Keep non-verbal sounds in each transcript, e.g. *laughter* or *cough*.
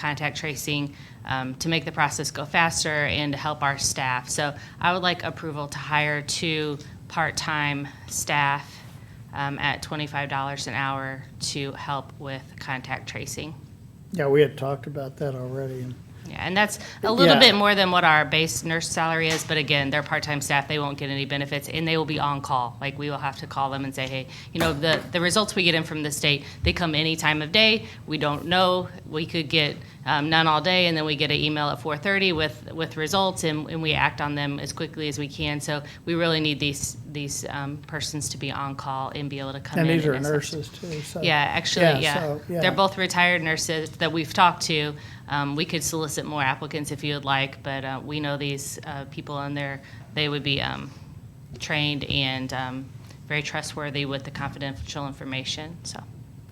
contact tracing um, to make the process go faster and to help our staff. So I would like approval to hire two part-time staff um, at $25 an hour to help with contact tracing. Yeah, we had talked about that already. and- Yeah, and that's a little Yeah. bit more than what our base nurse salary is, but again, they're part-time staff, they won't get any benefits, and they will be on call. Like, we will have to call them and say, hey, you know, the, the results we get in from the state, they come any time of day, we don't know, we could get um, none all day, and then we get an email at four-thirty with, with results, and, and we act on them as quickly as we can. So we really need these, these um, persons to be on call and be able to come in. And these are assess. nurses too, so. Yeah, Yeah, actually, yeah. so, yeah. They're both retired nurses that we've talked to. Um, We could solicit more applicants if you would like, but uh, we know these uh, people and they're, they would be um, trained and um, very trustworthy with the confidential information, so.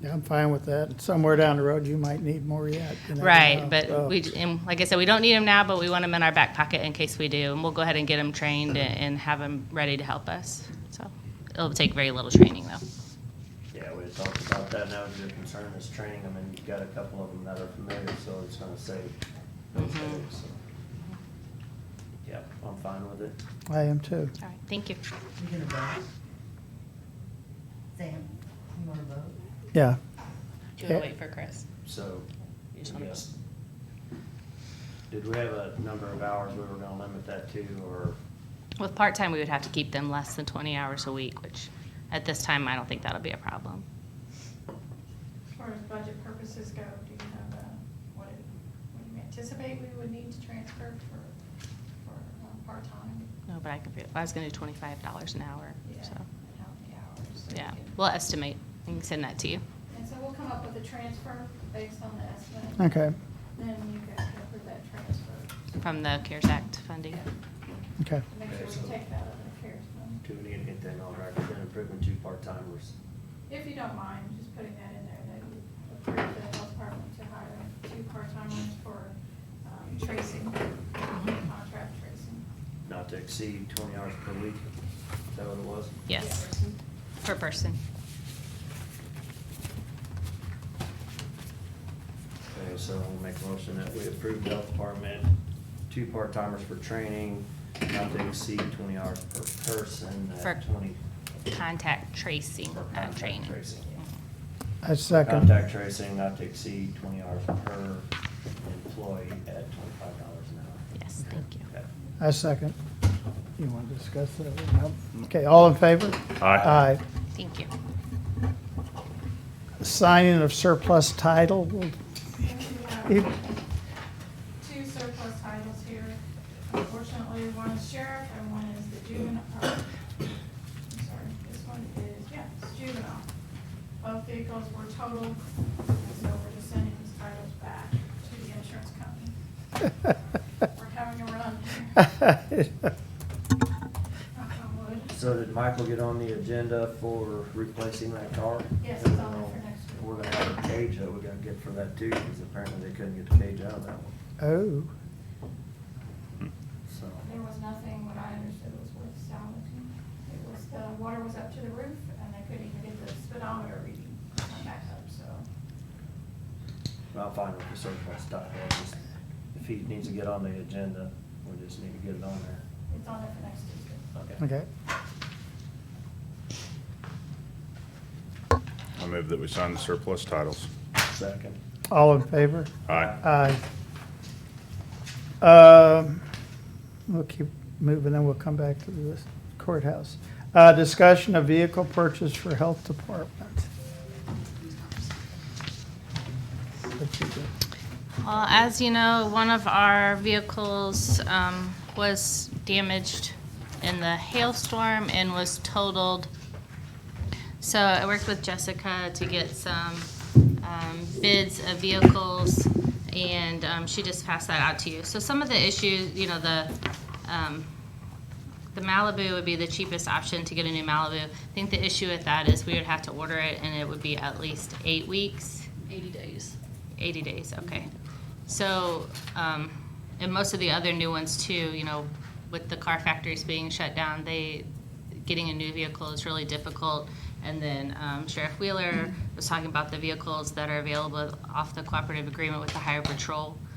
Yeah, I'm fine with that. Somewhere down the road, you might need more yet. you never Right, know, but so. we, and like I said, we don't need them now, but we want them in our back pocket in case we do. And we'll go ahead and get them trained and- and have them ready to help us, so. It'll take very little training, though. Yeah, we had talked about that, and that was your concern, is training them, and you've got a couple of them that are familiar, so it's gonna save. those headaches, so. Yep, I'm fine with it. I am too. All right, thank you. We gonna vote? Sam, you wanna vote? Yeah, Do you wanna wait for Chris? So, Just wanna- yes. Did we have a number of hours we were gonna limit that to, or, With part-time, we would have to keep them less than 20 hours a week, which at this time, I don't think that'll be a problem. As far as budget purposes go, do you have a, what it- what do you anticipate we would need to transfer for, for um, part-time? No, but I could, I was going to do $25 an hour, Yeah, so, and How many hours? so we yeah. can- We'll estimate and send that to you. And so we'll come up with a transfer based on the estimate. okay, Then you guys can approve that transfer. From the CARES Act funding. okay. Make sure we take that out of the CARES fund. do we need to get that on record, then approving two part-timers? If you don't mind, just putting that in there, that you approve the health department to hire two part-timers for um, tracing, Mm-hmm. contract tracing. Not to exceed twenty hours per week, is that what it was? Yes, per person. Okay, so I'll make a motion that we approve the health department, two part-timers for training, not to exceed twenty hours per person, For- at twenty. Contact tracing, for not contact training. tracing. I second. Contact tracing, not to exceed twenty hours per employee at twenty-five dollars an hour. Mm-hmm. Yes, thank you. Okay. I second. You want to discuss that? one? No? Okay, all in favor? Aye. Thank you. Signing of surplus title. *laughs* And we have Two surplus titles here. Unfortunately, one is sheriff and one is the juvenile, or, I'm sorry, this one is, yeah, it's juvenile. Both vehicles were totaled, so we're just sending these titles back to the insurance company. We're having a run here. *laughs* Knock on wood. So did Michael get on the agenda for replacing that car? Yes, it's on there for next week. We're gonna have a cage that we're gonna get for that too, because apparently they couldn't get the cage out of that one, Oh, so. There was nothing, what I understood was worth salvaging. It was, the water was up to the roof and they couldn't even get the speedometer reading to come back up, so. I'm fine with the surplus title, it's just, if he needs to get on the agenda, we just need to get it on there. It's on there for next Tuesday. okay. I move that we sign the surplus titles. Second. All in favor? Aye. Aye. Um, We'll keep moving, and we'll come back to the courthouse. Uh, Discussion of vehicle purchase for health department. What you got? Well, as you know, one of our vehicles um, was damaged in the hailstorm and was totaled. So I worked with Jessica to get some um, bids of vehicles, and um, she just passed that out to you. So some of the issues, you know, the um, the Malibu would be the cheapest option to get a new Malibu. I think the issue with that is we would have to order it, and it would be at least eight weeks. 80 days. 80 days, okay. So, um, and most of the other new ones too, you know, with the car factories being shut down, they, getting a new vehicle is really difficult. And then um, Sheriff Wheeler was talking about the vehicles that are available off the cooperative agreement with the higher patrol.